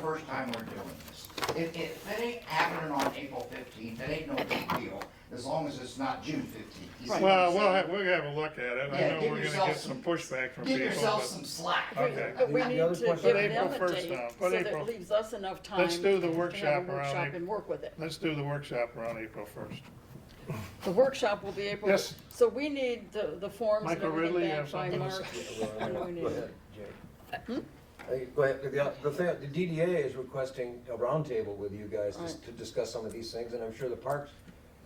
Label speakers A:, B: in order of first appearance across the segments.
A: first time we're doing this. If, if it ain't happening on April fifteenth, it ain't no big deal, as long as it's not June fifteenth.
B: Well, we'll have, we'll have a look at it. I
A: Yeah,
B: know
A: give
B: we're gonna
A: yourself
B: get
A: some-
B: some pushback from
A: Give
B: people,
A: yourself
B: but
A: some slack.
B: Okay.
C: But we
D: The
C: need
D: other
C: to
D: question-
C: give
B: Put April
C: them a
B: 1st
C: date,
B: now.
C: so
B: Put
C: that it
B: April-
C: leaves us enough time.
B: Let's do the
C: to have a
B: workshop around
C: workshop
B: April.
C: And work with it.
B: let's do the workshop around April first.
C: The workshop will be April.
B: Yes.
C: So we need the, the forms and
B: Michael Ridley, you
C: everything back
B: have
C: by
B: something to
C: March.
D: Well,
C: We
D: Go
C: need
D: ahead,
C: it.
D: Jay. Hey, Go ahead, the, the thing, the DDA is requesting a roundtable with you guys to,
C: Right.
D: to discuss some of these things, and I'm sure the parks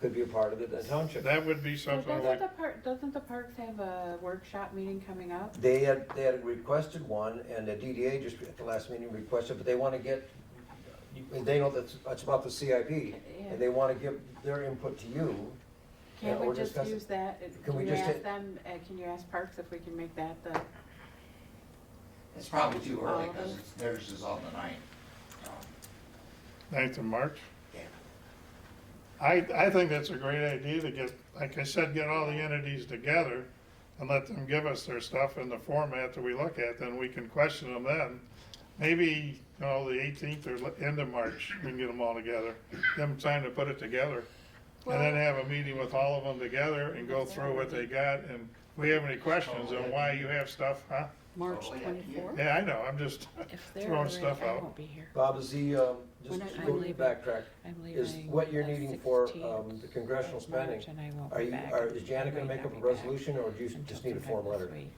D: could be a part of it, the township.
B: That would be
E: Well,
B: something
E: Doesn't
B: like,
E: the park, doesn't the parks have a workshop meeting coming up?
D: They had, they had requested one, and the DDA just at the last meeting requested, but they wanna get, they know that's, it's about the CIP,
E: Yeah.
D: and they wanna give their input to you. Yeah,
E: Can't
D: we're
E: we just
D: discussing-
E: use that?
D: Can we
E: you
D: just
E: ask
D: hit-
E: them, uh, can you ask parks if we can make that the,
A: It's probably too early, cause
F: Um,
A: it's- theirs is on the ninth. Um,
B: ninth of March.
A: Yeah.
B: I, I think that's a great idea to get, like I said, get all the entities together and let them give us their stuff in the format that we look at, then we can question them then. Maybe, you know, the eighteenth or le- end of March, we can get them all together, give them time to put it together. And then have a meeting with all of them together and go through what they got, and if we have any questions on why you have stuff, huh?
C: March
A: Oh, yeah.
C: twenty-fourth.
B: Yeah, I know, I'm just
F: If they're
B: throwing
F: already,
B: stuff
F: I
B: out.
F: won't be here.
D: Bob, is the, um, just
F: When I-
D: go
F: I'm leaving.
D: backtrack,
F: I'm leaving.
D: is what you're
F: the
D: needing for,
F: 16th
D: um, the congressional
F: of
D: spending.
F: March, And I won't
D: Are
F: be
D: you,
F: back.
D: are, is
F: I
D: Janet gonna
F: might
D: make
F: not
D: up a
F: be back
D: resolution, or do you
F: until
D: just need a
F: sometime
D: form
F: this
D: letter? Uh,
F: week.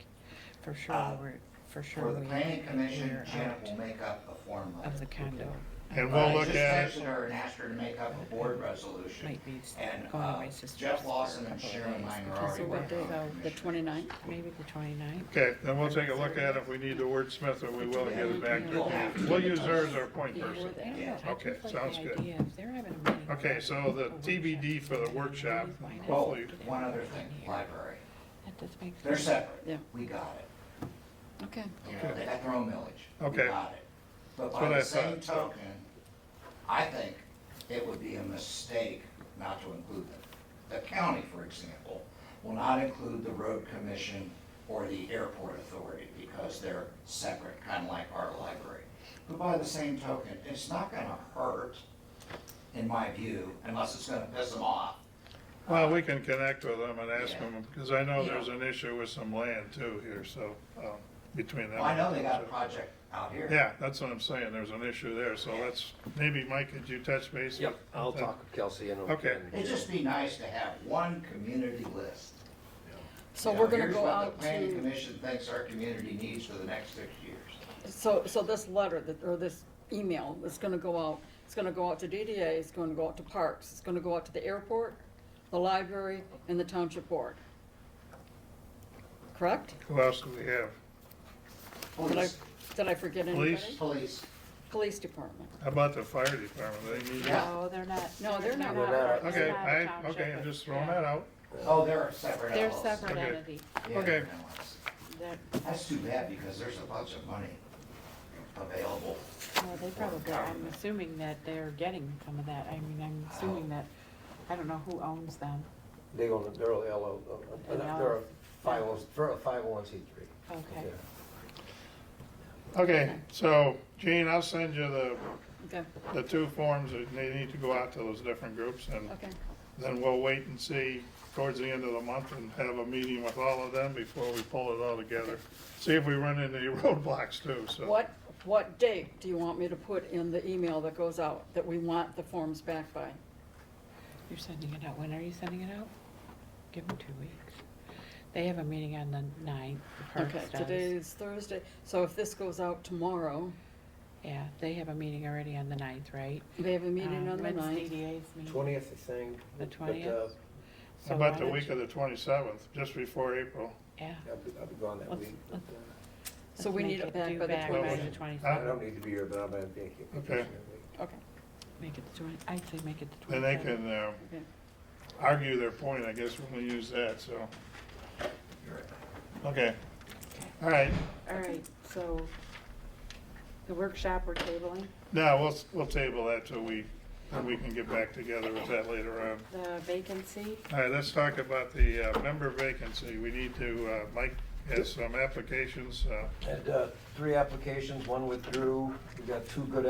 F: For sure, we're, for sure.
A: For the
F: we
A: planning commission,
F: are
A: Janet
F: out
A: will make up a form letter.
F: Of the condo.
B: And
A: I
B: we'll look
A: just
B: at it,
A: texted her and asked her to make up a board resolution.
F: Might be
A: And
F: going to
A: uh,
F: my sister's
A: Jeff
F: for a
A: Lawson and
F: couple of
A: Sharon
F: days
A: Mine are
F: because
A: already
C: So what
A: working
C: day,
A: on
C: though?
A: commissioners.
C: Uh, the twenty-ninth?
F: Maybe the twenty-ninth.
B: okay, then we'll take a look at it, if we need to wordsmith it, we will and get it back to her. We'll use her as our point person. Okay, sounds good. Okay, so the TBD for the workshop,
A: Oh,
B: hopefully,
A: one other thing, library.
F: That does make
A: They're
F: sense.
A: separate.
C: Yeah.
A: We got it.
C: Okay.
A: You know, they got their own millage. We
B: Okay.
A: got it. But
B: what
A: by the
B: I
A: same
B: thought.
A: token, I think it would be a mistake not to include them. The county, for example, will not include the road commission or the airport authority because they're separate, kind of like our library. But by the same token, it's not gonna hurt, in my view, unless it's gonna piss them off.
B: well, we can connect with them and ask
A: Yeah.
B: them, because I know there's an issue with some land too here, so, um, between them.
A: Well, I know they got a
B: so-
A: project out here.
B: Yeah, that's what I'm saying, there's an issue there, so let's, maybe, Mike, could you touch base?
D: Yep,
B: with-
D: I'll talk with Kelsey and.
B: Okay.
D: and-
A: It'd just be nice to have one community list.
C: So
A: You
C: we're
A: know,
C: gonna go
A: Here's what
C: out
A: the planning
C: to,
A: commission thinks our community needs for the next six years.
C: so, so this letter that, or this email is gonna go out, it's gonna go out to DDA, it's gonna go out to parks, it's gonna go out to the airport, the library, and the township board. Correct?
B: Who else do we have?
C: Did I,
A: Police,
C: did I forget anybody?
B: Police?
A: police,
C: Police department.
B: How about the fire department, they need,
A: Yeah.
E: no, they're not.
C: No, they're not.
E: part-
B: okay,
E: they're not a
B: I,
E: township,
B: okay, I'm
E: but-
B: just throwing
E: yeah.
B: that out.
A: oh, they're a separate
E: They're
A: LLC.
E: separate
B: Okay.
E: entity.
A: Yeah,
B: Okay.
A: they're LLC.
E: They're-
A: That's too bad because there's a bunch of money available.
E: No, they probably, I'm assuming that they're getting some of that. I mean, I'm assuming that, I don't know who owns them.
D: They own, they're a LO, uh, uh,
E: An
D: they're a
E: LO.
D: five oh, they're a five oh one C three.
E: Okay.
B: Okay, so, Gene, I'll send you the,
C: Okay,
B: the two forms that they need to go out to those different groups, and
C: okay.
B: then we'll wait and see towards the end of the month and have a meeting with all of them before we pull it all together. See if we run into any roadblocks too, so.
C: What, what date do you want me to put in the email that goes out, that we want the forms back by?
F: You're sending it out, when are you sending it out? Give them two weeks. They have a meeting on the ninth, the parks
C: Okay,
F: does.
C: today's Thursday, so if this goes out tomorrow,
F: Yeah, they have a meeting already on the ninth, right?
C: they have a meeting
F: Um,
C: on the
E: When's
C: ninth.
E: DDA's meeting?
D: Twentieth, I think.
F: The
D: but, uh,
F: 20th?
B: How
F: So
B: about
F: why
B: the
F: don't
B: week
F: you-
B: of the twenty-seventh, just before April?
F: Yeah.
D: I'll be, I'll be gone that
F: Let's-
D: week. but,
F: let's-
D: uh,
C: So
F: let's
C: we
F: make
C: need it
F: it
C: back
F: due
C: by the
F: back
B: Well,
F: the
C: 27th.
D: I
B: huh?
F: twenty-seventh.
D: don't need to be here, but I'm gonna be vacation
B: Okay.
D: that week.
C: Okay,
F: Make it the twenty, I'd say make it the
B: Then they
F: twenty-seventh.
B: can, uh,
C: okay.
B: argue their point, I guess, when we use that, so, okay. All right,
E: All right, so the workshop we're tabling,
B: now, we'll, we'll table that till we, then we can get back together with that later on.
E: the vacancy,
B: All right, let's talk about the uh, member vacancy. We need to, uh, Mike has some applications. uh,
D: Had, uh, three applications, one withdrew, we got two good